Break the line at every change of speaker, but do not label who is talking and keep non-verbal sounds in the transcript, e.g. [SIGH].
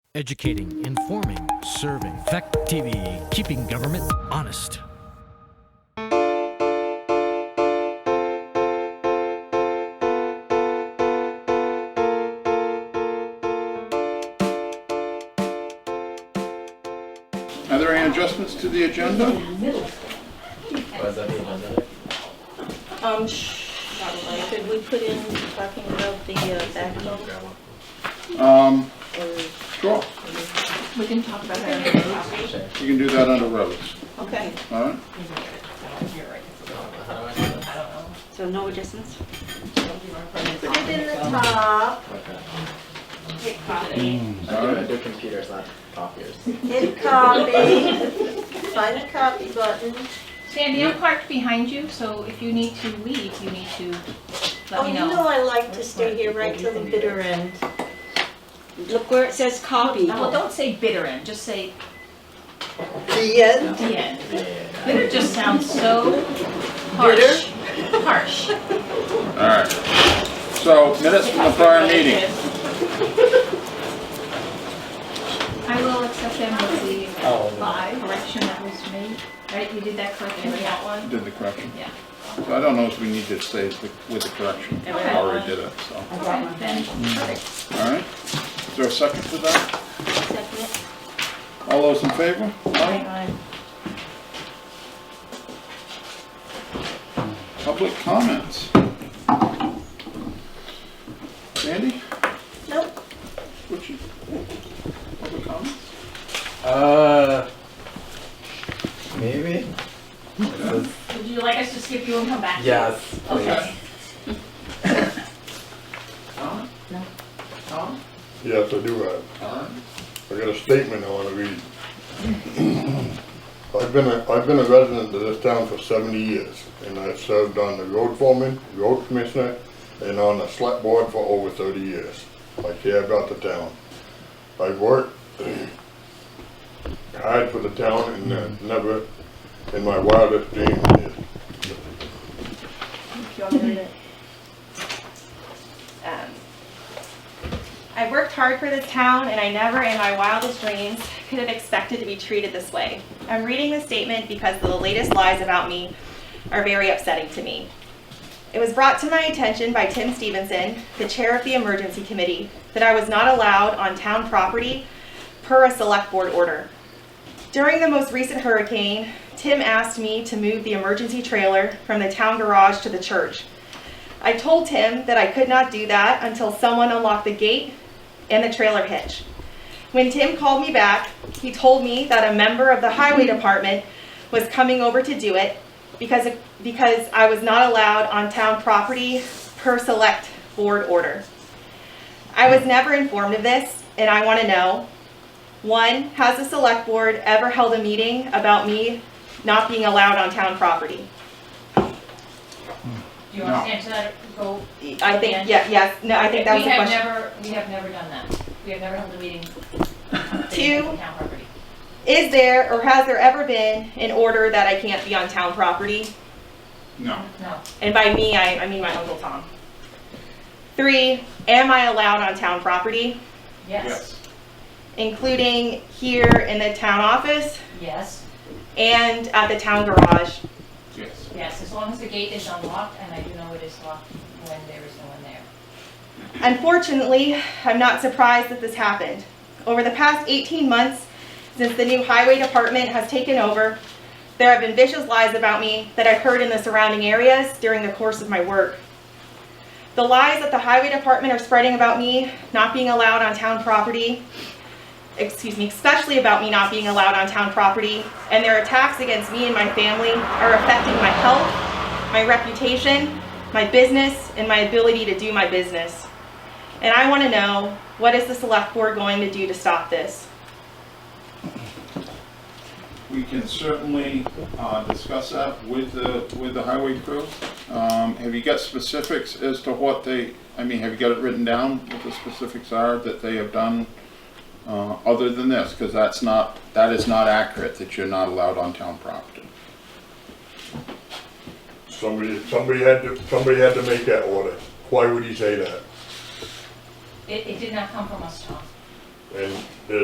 Educating, informing, serving. Fact TV, keeping government honest.
Are there any adjustments to the agenda?
Um, shh, not really. Could we put in talking about the uh, backhoe?
Um,
Or
sure,
We can talk about that.
you can do that under roads,
Okay,
all right?
So no adjustments?
put it in the top.
Hit copy.
All right.
They're computers, not copiers.
Hit copy. Find the copy button.
Sandy, I'm parked behind you, so if you need to leave, you need to
Oh,
let me
you
know.
know I like to stay here right till the bitter end.
Look where it says copy.
Well, don't say bitter end, just say
The end?
the end.
Yeah.
Bitter just sounds so harsh. Harsh.
All right. So minutes from the prior meeting.
I will accept them with
Oh.
the five correction that was made, right? You did that correction, that one?
Did the correction.
Yeah.
So I don't know if we need to say the- with the correction. I already did it, so,
Okay, then,
Mm.
perfect.
all right? Is there a second to that?
Second.
All those in favor? Aye. Public comments? Sandy,
Nope,
what's your, public comments?
Uh, maybe?
Would you like us to skip you and come back?
Yes,
Okay.
please.
Tom? Tom?
Yes, I do have.
Tom?
I got a statement I wanna read. [CLEARS THROAT] I've been a, I've been a resident of this town for seventy years, and I've served on the road foreman, road commissioner, and on the select board for over thirty years. I care about the town. I've worked [CLEARS THROAT] hard for the town and uh, never in my wildest dreams did.
Um, I worked hard for this town and I never in my wildest dreams could have expected to be treated this way. I'm reading this statement because the latest lies about me are very upsetting to me. It was brought to my attention by Tim Stevenson, the chair of the emergency committee, that I was not allowed on town property per a select board order. During the most recent hurricane, Tim asked me to move the emergency trailer from the town garage to the church. I told him that I could not do that until someone unlocked the gate and the trailer hitch. When Tim called me back, he told me that a member of the highway department was coming over to do it because, because I was not allowed on town property per select board order. I was never informed of this and I want to know, one, has the select board ever held a meeting about me not being allowed on town property?
Do you want to answer that, or go?
I think, yeah, yes, no, I think that was the
We
question.
have never, we have never done that. We have never held a meeting.
Two.
on Town property.
Is there or has there ever been an order that I can't be on town property?
No.
No.
And by me, I, I mean my Uncle Tom. Three, am I allowed on town property,
Yes.
including here in the town office
Yes.
and at the town garage?
Yes.
Yes, as long as the gate is unlocked, and I do know it is locked when there is no one there.
Unfortunately, I'm not surprised that this happened. Over the past 18 months, since the new highway department has taken over, there have been vicious lies about me that I've heard in the surrounding areas during the course of my work. The lies that the highway department are spreading about me not being allowed on town property, excuse me, especially about me not being allowed on town property, and their attacks against me and my family are affecting my health, my reputation, my business, and my ability to do my business. And I want to know, what is the select board going to do to stop this?
We can certainly uh, discuss that with the, with the highway crew. Um, Have you got specifics as to what they, I mean, have you got it written down, what the specifics are that they have done uh, other than this? Because that's not, that is not accurate, that you're not allowed on town property.
Somebody, somebody had to, somebody had to make that order. Why would he say that?
It, it did not come from us, Tom.
And there's